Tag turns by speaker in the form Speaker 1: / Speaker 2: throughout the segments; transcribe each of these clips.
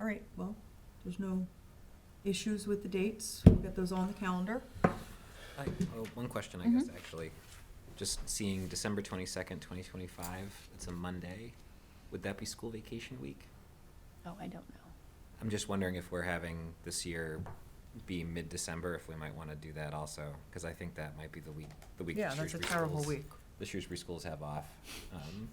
Speaker 1: All right, well, there's no issues with the dates. We'll get those on the calendar.
Speaker 2: I, oh, one question, I
Speaker 3: Mm-hmm.
Speaker 2: guess, actually. Just seeing December twenty-second, twenty twenty-five, it's a Monday. Would that be school vacation week?
Speaker 4: Oh, I don't know.
Speaker 2: I'm just wondering if we're having this year be mid-December, if we might want to do that also, because I think that might be the week, the week.
Speaker 3: Yeah,
Speaker 2: the
Speaker 3: that's a
Speaker 2: Shrewsbury
Speaker 3: terrible
Speaker 2: schools-
Speaker 3: week.
Speaker 2: The Shrewsbury schools have off, um,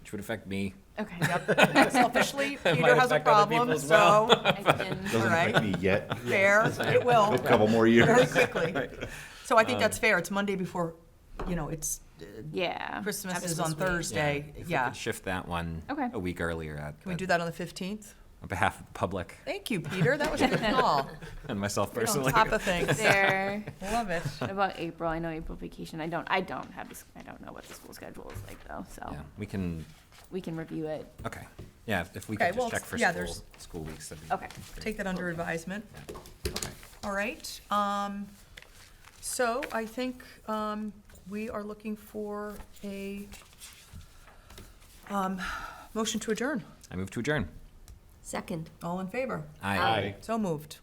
Speaker 2: which would affect me.
Speaker 4: Okay, yep.
Speaker 3: Selfishly,
Speaker 2: It
Speaker 3: Peter
Speaker 2: might
Speaker 3: has a
Speaker 2: affect other
Speaker 3: problem,
Speaker 2: people as well.
Speaker 3: so,
Speaker 4: I can-
Speaker 3: all
Speaker 5: Doesn't affect
Speaker 3: right,
Speaker 5: me yet.
Speaker 3: fair, it will,
Speaker 5: A couple more years.
Speaker 3: very quickly. So I
Speaker 2: Um,
Speaker 3: think that's fair, it's Monday before, you know, it's, uh,
Speaker 4: Yeah.
Speaker 3: Christmas
Speaker 4: after
Speaker 3: is on
Speaker 4: this week.
Speaker 3: Thursday,
Speaker 2: If we
Speaker 3: yeah.
Speaker 2: could uh, Shift that one.
Speaker 4: Okay.
Speaker 2: A week earlier. Can
Speaker 3: Can we do that on the 15th?
Speaker 2: On behalf of the public
Speaker 3: Thank you, Peter, that was a good call.
Speaker 2: and myself
Speaker 3: You're on
Speaker 2: personally.
Speaker 3: top of things,
Speaker 4: There,
Speaker 3: love it.
Speaker 4: about April, I know April vacation, I don't, I don't have, this- I don't know what the school schedule is like though, so
Speaker 2: Yeah, we can
Speaker 4: we can review it.
Speaker 2: Okay, yeah, if- if we
Speaker 3: Okay,
Speaker 2: could
Speaker 3: well,
Speaker 2: just check for
Speaker 3: yeah,
Speaker 2: school,
Speaker 3: there's-
Speaker 2: school weeks, that'd be.
Speaker 4: Okay.
Speaker 2: great.
Speaker 3: Take that under advisement.
Speaker 2: Yeah.
Speaker 3: All right, um, so I think, um, we are looking for a, um, motion to adjourn.
Speaker 2: I move to adjourn.
Speaker 6: Second.
Speaker 3: All in favor?
Speaker 2: Aye.
Speaker 5: Aye.
Speaker 3: So moved.